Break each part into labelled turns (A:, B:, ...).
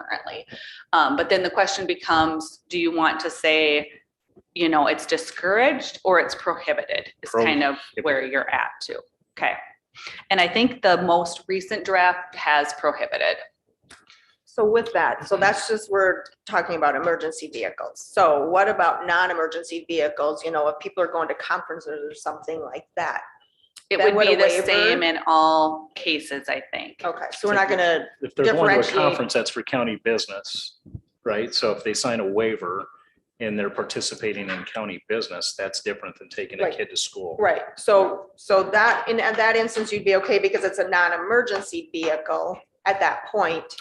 A: currently. Um, but then the question becomes, do you want to say, you know, it's discouraged or it's prohibited is kind of where you're at too. Okay. And I think the most recent draft has prohibited.
B: So with that,
A: Mm-hmm.
B: so that's just, we're talking about emergency vehicles. So what about non-emergency vehicles? You know, if people are going to conferences or something like that?
A: It would
B: Then would
A: be
B: a
A: the
B: waiver- Oh.
A: same in all cases, I think.
B: Okay, so we're not gonna,
C: If they're going to a
B: Differentiate.
C: conference, that's for county business, right? So if they sign a waiver and they're participating in county business, that's different than taking a
B: Right.
C: kid to school.
B: right, so, so that, in at that instance, you'd be okay because it's a non-emergency vehicle at that point.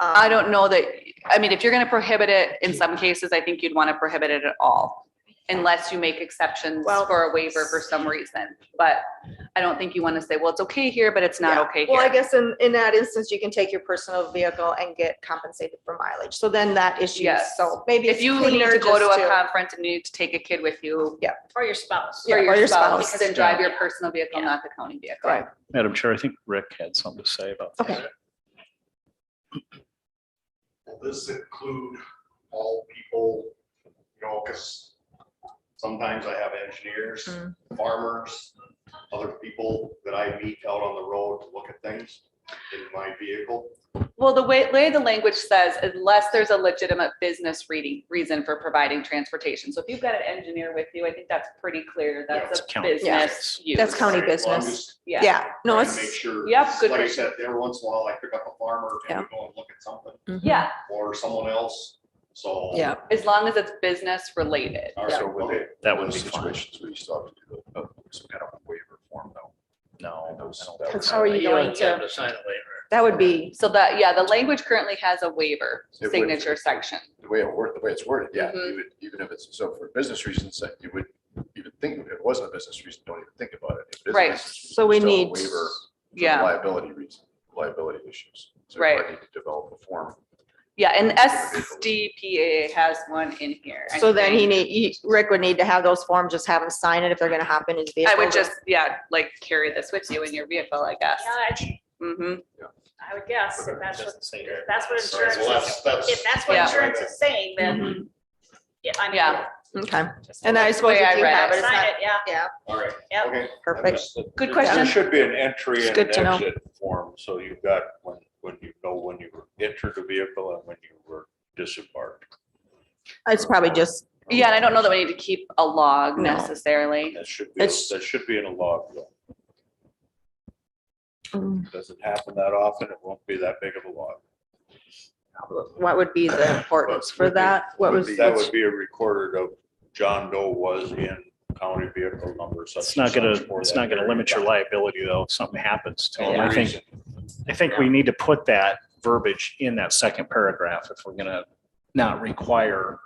A: I
B: Um,
A: don't know that, I mean, if you're gonna prohibit it in some cases, I think you'd wanna prohibit it at all. Unless you make exceptions
B: Well-
A: for a waiver for some reason, but I don't think you wanna say, well, it's okay here, but it's
B: Yeah.
A: not okay
B: Well, I
A: here.
B: guess in, in that instance, you can take your personal vehicle and get compensated for mileage. So then that issue,
A: Yes.
B: so maybe.
A: If
B: it's
A: you need
B: cleaner
A: to go
B: just
A: to a conference and you need to take a kid with you.
D: Or your spouse.
B: Yeah,
A: Or your spouse, then drive your
D: yeah.
A: personal vehicle, not the county vehicle.
B: Right.
C: Madam Chair, I think Rick had something to say about
B: Okay.
C: that.
E: Will this include all people, you know, because sometimes I have engineers,
A: Hmm.
B: Mm.
E: farmers, other people that I meet out on the road to look at things in my vehicle.
A: Well, the way, way the language says, unless there's a legitimate business reading, reason for providing transportation. So if you've got an engineer with you, I think that's pretty clear. That's
C: it's
A: a
C: county.
A: business use.
B: That's county
E: Right, well, I'm
B: business.
E: just
A: Yeah.
B: Yeah, no,
E: trying to Make
B: it's,
E: sure.
A: Yep, good
E: Like I
A: question.
E: said, every once in a while, I pick up a farmer and we go and look at something
A: Yeah,
E: or someone else, so.
B: yeah.
A: as long as it's business related.
E: All right,
B: Yeah.
E: so would it-
C: That would be
F: Those
C: fine.
F: Situations where you still have to do a- a- some kind of waiver form though.
C: No.
F: And those-
C: I don't
F: that
C: think
F: was-
C: so.
B: How are you going to, that would be,
A: So that, yeah, the language currently has a waiver
F: It would.
A: signature section.
F: The way it worked, the way it's worded, yeah,
A: Mhm.
B: Mm-hmm.
F: you would, even if it's, so for business reasons, that you would even think, if it wasn't a business reason, don't even think about it. If it is a
A: Right.
F: business reason,
B: So we
F: it's still a
B: need-
F: Waiver. for
A: Yeah,
F: Liability reason, liability issues. So you
A: Right.
F: might need to Develop a form.
A: yeah, and SDPA has one in here. I
B: so then he
A: think.
B: need, he- Rick would need to have those forms, just have him sign it if they're gonna hop in his vehicle.
A: I would just, yeah, like carry this with you in your vehicle, I guess.
D: Yeah, I-
A: hmm
D: I would guess, if that's what,
C: Doesn't say
D: if that's what
C: Sorry,
D: insurance
E: Well,
D: is,
E: that's, that's.
D: if that's what
A: Yeah.
D: insurance is saying, then, yeah, I mean.
A: Yeah.
B: Okay, and I suppose
A: way
B: if
A: I
B: you
A: read
B: have
A: it.
B: it, it's
D: Sign
B: not,
D: it, yeah,
B: yeah,
E: All right,
D: Yep.
E: okay.
B: perfect.
A: Good
B: Yeah.
G: There
A: question.
G: should be an entry
B: It's
G: and
B: good
G: an
B: to know.
G: exit form, so you've got when, when you know when you entered the vehicle and when you were disembarked.
B: It's probably just,
A: Yeah, and I don't know that we need to keep a log
B: No.
A: necessarily.
G: That should be,
B: It's-
G: that should be in a log. though.
B: Mm.
G: Doesn't happen that often, it won't be that big of a log.
B: what would be the importance for that? What was,
G: That would be a recorder of John Doe was in county vehicle number such.
C: It's not gonna,
G: and such for
C: it's
G: that
C: not gonna
G: period
C: limit
G: of
C: your
G: time.
C: liability though, if something happens to them.
G: Only
C: I think,
G: reason.
C: I think we need to put that verbiage in that second paragraph if we're gonna not require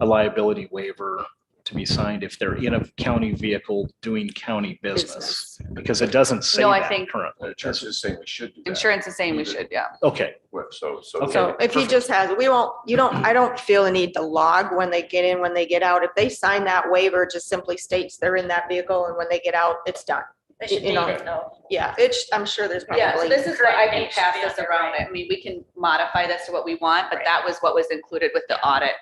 C: a liability waiver to be signed if they're in a county vehicle doing county business, because it doesn't say
A: No, I
C: that
A: think-
C: currently.
F: The church is saying we should do that.
A: Insurance is saying we should, yeah.
C: Okay,
F: Well, So, so.
C: Okay.
B: so if he just has, we won't, you don't, I don't feel the need to log when they get in, when they get out. If they sign that waiver, it just simply states they're in that vehicle and when they get out, it's done.
D: they should
B: You
D: name
B: know.
D: it though.
B: Yeah, it's, I'm sure there's probably.
A: Yeah, so this is what I can
D: Correct.
A: pass this around. I mean, we can modify this to what we want, but
D: Right.
A: that was what was included with the audit.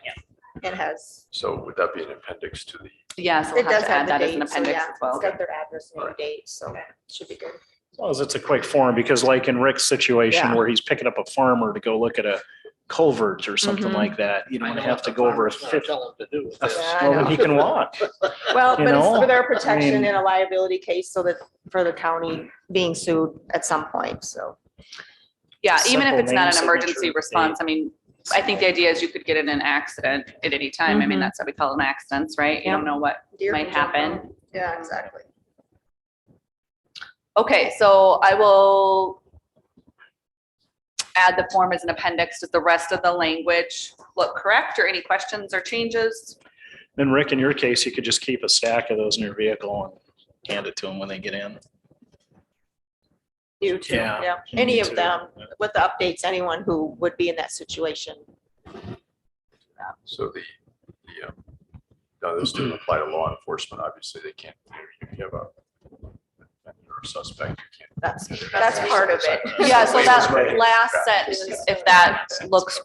B: It has,
F: So would that be an appendix to the?
A: Yeah, so we'll
B: it does
A: have to
B: have
A: add
B: the
A: that as an appendix
B: date, so yeah,
A: as
B: it's
A: well.
B: got their address and their date, so
D: Okay.
B: should be good.
C: as long as it's a quick form, because like in Rick's situation
B: Yeah.
C: where he's picking up a farmer to go look at a culvert or something
A: Mm-hmm.
B: Mhm.
C: like that, you don't
H: I
C: want to
H: know
C: have
H: what
C: to
H: the
C: go over a
H: farmer's gonna
C: fifth.
H: Tell them to do.
C: a-
B: Yeah, I
C: Well, then
B: know.
C: he can walk.
B: Well,
C: You
B: but it's
C: know,
B: for their
C: I
B: protection
C: mean-
B: in a liability case so that for the county being sued at some point, so.
A: Yeah,
C: Just
A: even if
C: simple
A: it's not
C: name,
A: an emergency
C: signature,
A: response, I mean, I think the idea is you could get in an accident at any time. I mean,
B: Mhm.
A: that's what we call them accidents, right? You don't know what
B: deer
A: might
B: can jump
A: happen.
B: out. Yeah, exactly.
A: Okay, so I will add the form as an appendix. Does the rest of the language look correct or any questions or changes?
C: Then Rick, in your case, you could just keep a stack of those in your vehicle and hand it to them when they get in.
B: You too,
C: Yeah.
B: yeah. Any
C: Me
B: of
C: too.
B: them with the updates, anyone who would be in that situation.
F: So the, the, um, no, this doesn't apply to law enforcement, obviously, they can't, you know, you have a. suspect. you can't-
B: That's, that's part of it.
A: Yeah, so
F: Wait,
A: that
F: that's right.
A: last sentence, if that looks